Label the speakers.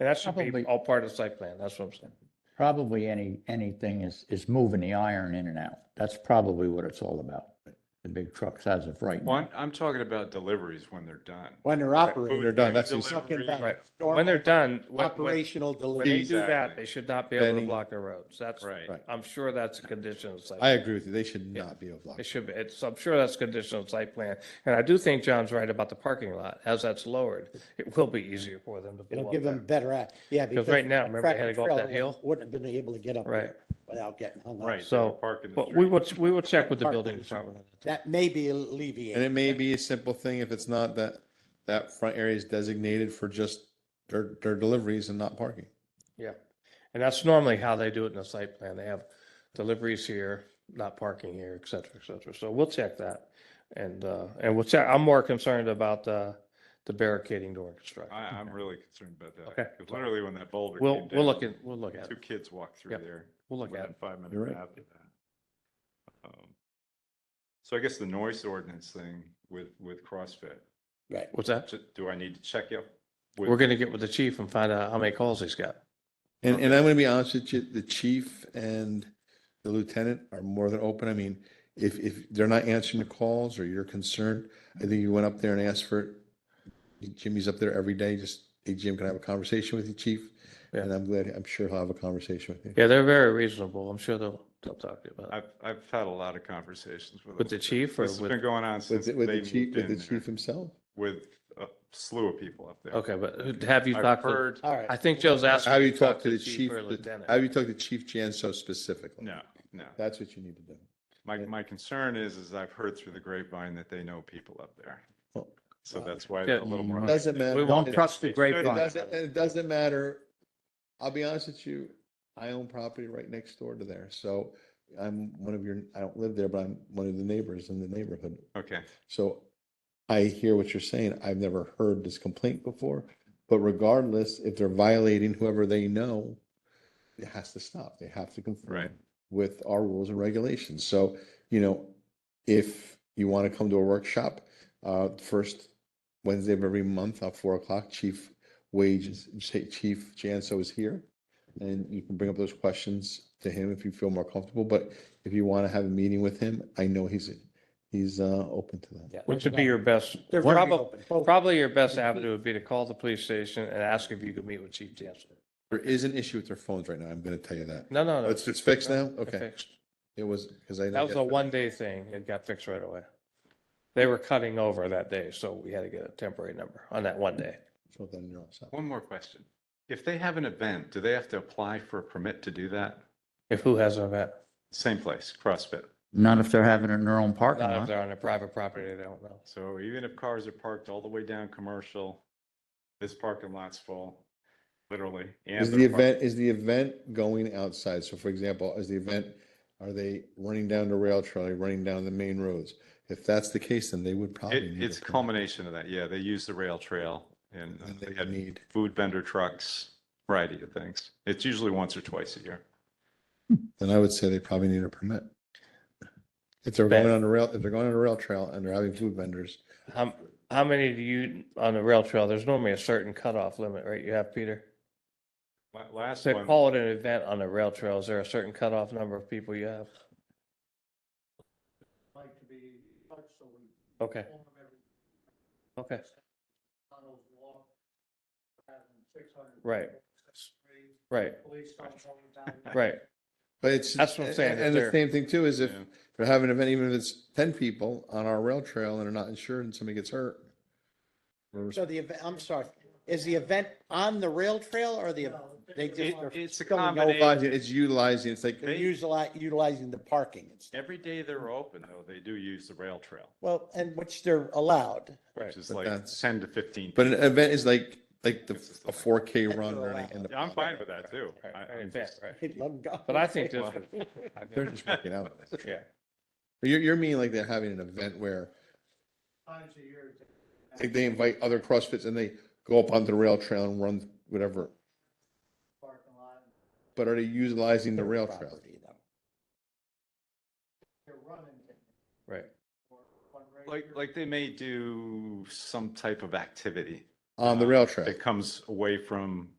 Speaker 1: And that should be
Speaker 2: Probably-
Speaker 1: all part of the site plan, that's what I'm saying.
Speaker 2: Probably any, anything is, is moving the iron in and out. That's probably what it's all about. The big trucks as of right
Speaker 3: Well,
Speaker 2: now.
Speaker 3: I'm, I'm talking about deliveries when they're done.
Speaker 4: When they're
Speaker 3: Food,
Speaker 4: operating.
Speaker 5: they're done, that's
Speaker 3: delivery,
Speaker 4: Talking about
Speaker 1: Right.
Speaker 4: normal
Speaker 1: When they're done, when, when
Speaker 4: Operational
Speaker 1: when they
Speaker 4: delivery.
Speaker 1: do that,
Speaker 3: Exactly.
Speaker 1: they should not be able to
Speaker 5: Benny.
Speaker 1: block the roads. That's,
Speaker 3: Right.
Speaker 5: Right.
Speaker 1: I'm sure that's a condition of the site.
Speaker 5: I
Speaker 1: plan.
Speaker 5: agree with you. They should not be
Speaker 1: It
Speaker 5: overlocked.
Speaker 1: should be, it's, I'm sure that's a condition of the site plan. And I do think John's right about the parking lot. As that's lowered, it will be easier for them to blow
Speaker 4: It'll
Speaker 1: up
Speaker 4: give them
Speaker 1: that.
Speaker 4: better, ac- yeah.
Speaker 1: right now, remember, they had
Speaker 4: tractor
Speaker 1: to go up
Speaker 4: trailer
Speaker 1: that hill?
Speaker 4: Wouldn't have been able to get up
Speaker 1: Right.
Speaker 4: there without getting hung up.
Speaker 3: Right. they
Speaker 1: So,
Speaker 3: were parking the
Speaker 1: But we
Speaker 3: street.
Speaker 1: will, we will check with the building
Speaker 4: Parking.
Speaker 1: department.
Speaker 4: That may be
Speaker 5: And
Speaker 4: alleviated.
Speaker 5: it may be a simple thing if it's not that, that front area is designated for just their, their deliveries and not parking.
Speaker 1: Yeah. And that's normally how they do it in the site plan. They have deliveries here, not parking here, et cetera, et cetera. So we'll check that. And, uh, and we'll check, I'm more concerned about, uh, the barricading during construction.
Speaker 3: I, I'm really concerned about that.
Speaker 1: Okay.
Speaker 3: 'cause Literally when that boulder
Speaker 1: We'll,
Speaker 3: came
Speaker 1: we'll
Speaker 3: down,
Speaker 1: look at, we'll look at
Speaker 3: Two
Speaker 1: it.
Speaker 3: kids walked through
Speaker 1: Yep.
Speaker 3: there.
Speaker 1: We'll look at
Speaker 3: within
Speaker 1: it.
Speaker 3: five minutes
Speaker 5: You're right.
Speaker 3: after that. Um, So I guess the noise ordinance thing with, with CrossFit,
Speaker 4: Right.
Speaker 1: What's that?
Speaker 3: j- do I need to check you? with-
Speaker 1: We're going to get with the chief and find out how many calls he's got.
Speaker 5: And, and I'm gonna be honest with you, the chief and the lieutenant are more than open. I mean, if, if they're not answering the calls or you're concerned, I think you went up there and asked for it. Jimmy's up there every day, just, hey, Jim, can I have a conversation with you, chief?
Speaker 1: Yeah.
Speaker 5: And I'm glad, I'm sure he'll have a conversation with you.
Speaker 1: Yeah, they're very reasonable. I'm sure they'll, they'll talk to you about it.
Speaker 3: I've, I've had a lot of conversations with.
Speaker 1: With the
Speaker 3: them.
Speaker 1: chief or
Speaker 3: This has
Speaker 1: with-
Speaker 3: been going on
Speaker 5: With,
Speaker 3: since
Speaker 5: the-
Speaker 3: they
Speaker 5: with the
Speaker 3: moved
Speaker 5: chief, with the
Speaker 3: in
Speaker 5: chief
Speaker 3: there,
Speaker 5: himself?
Speaker 3: with a slew of people up there.
Speaker 1: Okay, but have you
Speaker 3: I've
Speaker 1: talked to,
Speaker 3: heard,
Speaker 4: All right.
Speaker 1: I think Joe's asking.
Speaker 5: Have
Speaker 1: if
Speaker 5: you talked to the chief,
Speaker 1: or
Speaker 5: the-
Speaker 1: lieutenant.
Speaker 5: have you talked to Chief Janso specifically?
Speaker 3: no, no.
Speaker 5: That's what you need to do.
Speaker 3: My, my concern is, is I've heard through the grapevine that they know people up there.
Speaker 5: Well,
Speaker 3: So that's why
Speaker 1: Yeah.
Speaker 3: it's a little more.
Speaker 5: Doesn't matter.
Speaker 2: Don't trust the
Speaker 3: It
Speaker 5: It
Speaker 2: grapevine.
Speaker 5: doesn't, it doesn't matter. I'll be honest with you, I own property right next door to there, so I'm one of your, I don't live there, but I'm one of the neighbors in the neighborhood.
Speaker 3: Okay,
Speaker 5: So I hear what you're saying. I've never heard this complaint before, but regardless, if they're violating whoever they know, it has to stop. They have to
Speaker 3: Right.
Speaker 5: conform with our rules and regulations. So, you know, if you want to come to a workshop, uh, first Wednesday of every month at four o'clock, Chief Wages, Chief Janso is here. And you can bring up those questions to him if you feel more comfortable, but if you want to have a meeting with him, I know he's, he's, uh, open to that.
Speaker 4: Yeah,
Speaker 1: Which would be your best,
Speaker 4: They're very
Speaker 1: probably,
Speaker 4: open. Both-
Speaker 1: probably your best avenue would be to call the police station and ask if you could meet with Chief Jansen.
Speaker 5: There is an issue with their phones right now, I'm gonna tell you that.
Speaker 1: No, no, no.
Speaker 5: It's, it's fixed now? Okay,
Speaker 1: Fixed.
Speaker 5: it was, because I.
Speaker 1: That was a one-day thing. It got fixed right away. They were cutting over that day, so we had to get a temporary number on that one day.
Speaker 5: So then you're all set.
Speaker 3: one more question. If they have an event, do they have to apply for a permit to do that?
Speaker 1: If who has an event,
Speaker 3: Same place, CrossFit.
Speaker 2: Not if they're having it in their own parking
Speaker 1: not if
Speaker 2: lot.
Speaker 1: they're on a private property, they don't know.
Speaker 3: So even if cars are parked all the way down commercial, this parking lot's full, literally. and
Speaker 5: Is the
Speaker 3: they're parked-
Speaker 5: event, is the event going outside? So for example, is the event, are they running down the rail trail, Are they running down the main roads? If that's the case, then they would probably.
Speaker 3: It,
Speaker 5: need
Speaker 3: it's a
Speaker 5: permit.
Speaker 3: culmination of that. Yeah, they use the rail trail and uh,
Speaker 5: Then
Speaker 3: they
Speaker 5: They
Speaker 3: had
Speaker 5: would need,
Speaker 3: food vendor trucks, variety of things. It's usually once or twice a year.
Speaker 5: then I would say they probably need a permit. If they're
Speaker 1: Bet.
Speaker 5: going on the rail, if they're going on a rail trail and they're having food vendors,
Speaker 1: How, how many do you, on the rail trail, there's normally a certain cutoff limit, right? You have, Peter?
Speaker 3: La- Last
Speaker 1: So
Speaker 3: one,
Speaker 1: call it an event on the rail trail. Is there a certain cutoff number of people you have? Okay. Okay. Right. Right, right.
Speaker 5: but it's.
Speaker 1: That's what I'm saying,
Speaker 5: and-
Speaker 1: if
Speaker 5: And the
Speaker 1: they're-
Speaker 5: same thing too is if
Speaker 3: Yeah.
Speaker 5: they're having an event, even if it's ten people on our rail trail and they're not insured and somebody gets hurt. we're
Speaker 4: So the event, I'm sorry, is the event on the rail trail or the, they just. are
Speaker 3: It- it's a
Speaker 4: filling up-
Speaker 3: combination.
Speaker 5: utilizing- It's utilizing, it's like,
Speaker 4: They're utilizing, utilizing the parking and stuff.
Speaker 3: every day they're open though, they do use the rail trail,
Speaker 4: Well, and which they're allowed.
Speaker 3: which is
Speaker 5: But
Speaker 3: like
Speaker 5: that's-
Speaker 3: ten to fifteen.
Speaker 5: but an event is like, like the,
Speaker 3: This is the
Speaker 5: a four K
Speaker 4: That's
Speaker 5: run
Speaker 4: all
Speaker 5: or
Speaker 4: I-
Speaker 5: anything.
Speaker 3: Yeah, I'm fine with that too.
Speaker 1: Right,
Speaker 3: I-
Speaker 1: right,
Speaker 3: I'm
Speaker 1: in fact,
Speaker 3: just-
Speaker 1: right.
Speaker 4: They'd let 'em go.
Speaker 1: But I think this.
Speaker 3: Well,
Speaker 5: They're just working out.
Speaker 1: Yeah,
Speaker 5: You're, you're meaning like they're having an event where like they invite other CrossFits and they go up onto the rail trail and run whatever. But are they utilizing the rail trail?
Speaker 4: Property, though.
Speaker 1: right.
Speaker 3: Like, like they may do some type of activity
Speaker 5: On the rail trail?
Speaker 3: that comes away from